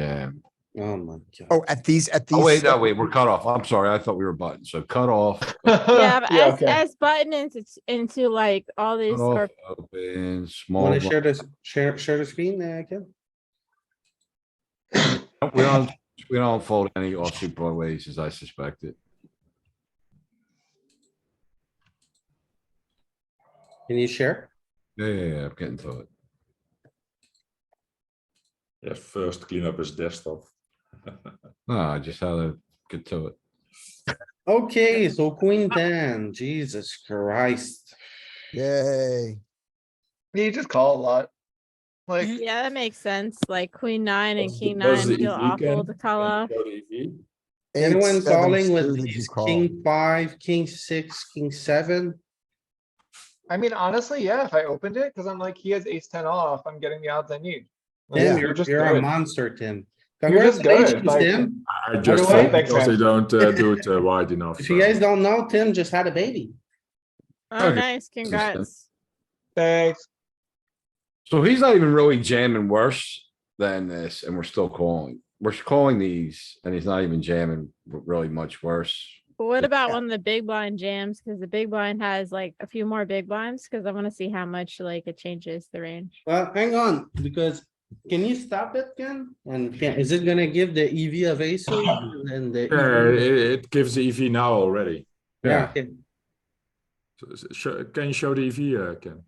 jam. Oh my god. Oh, at these, at these. Oh, wait, no, wait, we're cut off. I'm sorry. I thought we were button. So cut off, cut Yeah, but Yeah, as, okay. Oh. as button into, into like all these, off, or open, small. Wanna blind. share this, share, share the screen uh, there, Ken? We don't, we don't fold any offsuit broadways as I suspected. Can you share? Yeah, yeah, yeah, I'm getting to it. Yeah, first clean up his desktop. No, I just had to get to it. Okay, so queen ten, Jesus Christ. Yay. You just call a lot. Like, yeah, that makes sense. Like queen nine and That's the king nine buzzer feel if you awful can. to call off. And Cody V. Eight, Anyone seven calling with suited, ace you call. king five, king six, king seven? I mean, honestly, yeah, if I opened it, cuz I'm like, he has ace ten off, I'm getting the odds I need. Like, Tim, you're you're, just you're a good. monster, Tim. You're just good, Congratulations, like- Tim. I just way, fold back because they then. don't uh, do it uh, wide enough. If you uh, guys don't know, Tim just had a baby. Oh, Okay. nice, congrats. Thanks. So he's not even really jamming worse than this and we're still calling. We're calling these and he's not even jamming really much worse. But what about Yeah. one of the big blind jams? Cause the big blind has like a few more big blinds, cause I wanna see how much like it changes the range. Well, hang on, because can you stop it, Ken? And can, is it gonna give the EV of ace suit and the? Yeah, EV? it, it gives the EV now already. Yeah, okay. So, so- sho- can you show the EV, uh, Ken?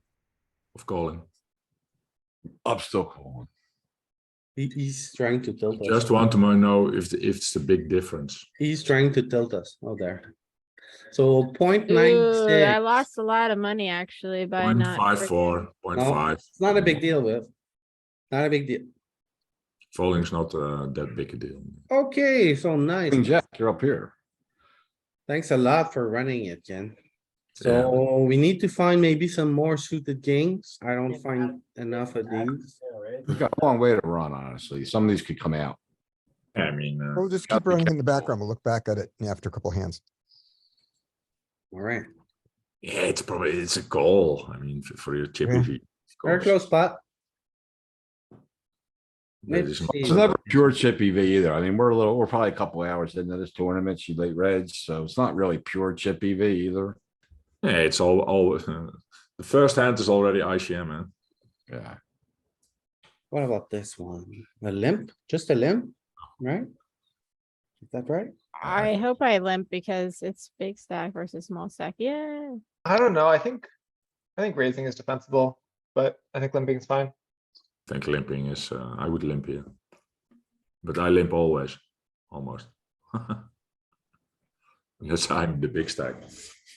Of calling. I'm still calling. He- he's trying to tilt us. Just want to mo- know if, the, if it's a big difference. He's trying to tilt us. Oh, there. So point nine Ooh, I six. lost a lot of money actually by Point not. five freaking- four, point No. five. It's not a big deal, with. Not a big deal. Folding's not uh, that big a deal. Okay, so nice. Queen Jack, you're up here. Thanks a lot for running it, Ken. Yeah. So we need to find maybe some more suited kings. I don't find enough of these. We've got a long way to run, honestly. Some of these could come out. I mean, uh, We'll just Gotta keep be running in the background. We'll look back at it after a couple hands. Alright, yeah, it's probably it's a call. I mean, for, for your chip E Yeah. EV. of very course. close spot. That is Let's It's see. not- never pure chip EV either. I mean, we're a little, we're probably a couple hours into this tournament. She late reds, so it's not really pure chip EV either. Yeah, it's all all. the first hand is already ICM, man. Yeah. What about this one? A limp, just a limp, right? Is that right? I hope I limp because it's big stack versus small stack. Yeah. I don't know, I think, I think raising is defensible, but I think limping's fine. I think limping is. Uh, I would limp here, but I limp always, almost. Unless I'm the big stack.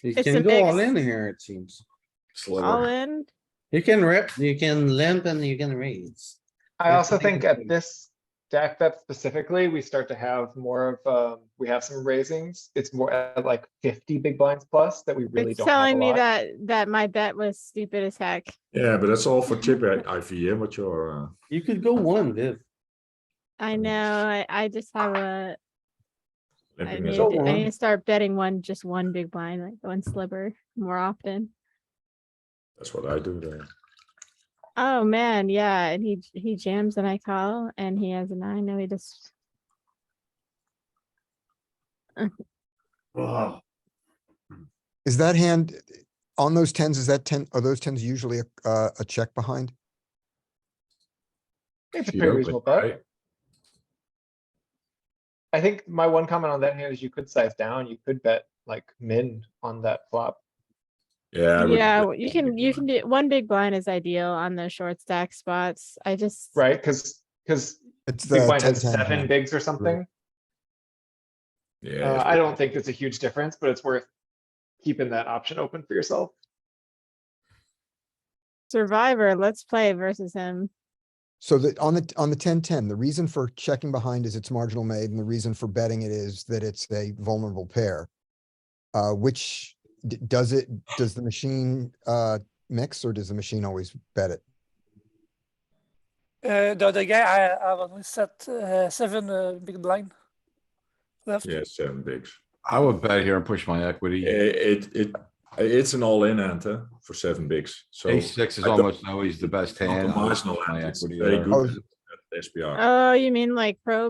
You It's can a go big all s- in here, it seems. All Sliver. in. You can rip, you can limp and you can raise. I Yeah, also I think think it's at good. this stack bet specifically, we start to have more of, um, we have some raisings. It's more at like fifty big blinds plus that we really It's don't have a telling me lot. that, that my bet was stupid as heck. Yeah, but that's all for chip IV. Yeah, what your uh, You could go one, Viv. I Mm. know, I, I just have a, I limping need, is. all to- I one. need to start betting one, just one big blind, like one sliver more often. That's what I do. There. Oh, man, yeah, and he, j- he jams and I call and he has a nine, no, he just, Ugh. Is that hand on those tens? Is that ten, are those tens usually a, uh, a check behind? It's a She pretty opened, reasonable bet. right? I think my one comment on that hand is you could size down, you could bet like min on that flop. Yeah. I would- yeah, w- you can, you can do, one big blind is ideal on the short stack spots. I just, Right, cuz, cuz It's the. big blind has 10, 10, seven hand. bigs or something. Yeah. Uh, it's- I don't think it's a huge difference, but it's worth keeping that option open for yourself. survivor, let's play versus him. So that on the, on the ten, ten, the reason for checking behind is it's marginal made and the reason for betting it is that it's a vulnerable pair. Uh, which d- does it, does the machine, uh, mix or does the machine always bet it? Uh, the other guy, I, I've only set uh, seven uh, big blind left. Yeah, seven bigs. I would bet here and push my equity. It, it it it's an all-in hand huh, for seven bigs. So Ace six is I don't- almost always the best Not hand. the I would marginal push my hand, it's equity very there. good. Oh, hand. SPR. Oh, you mean like pro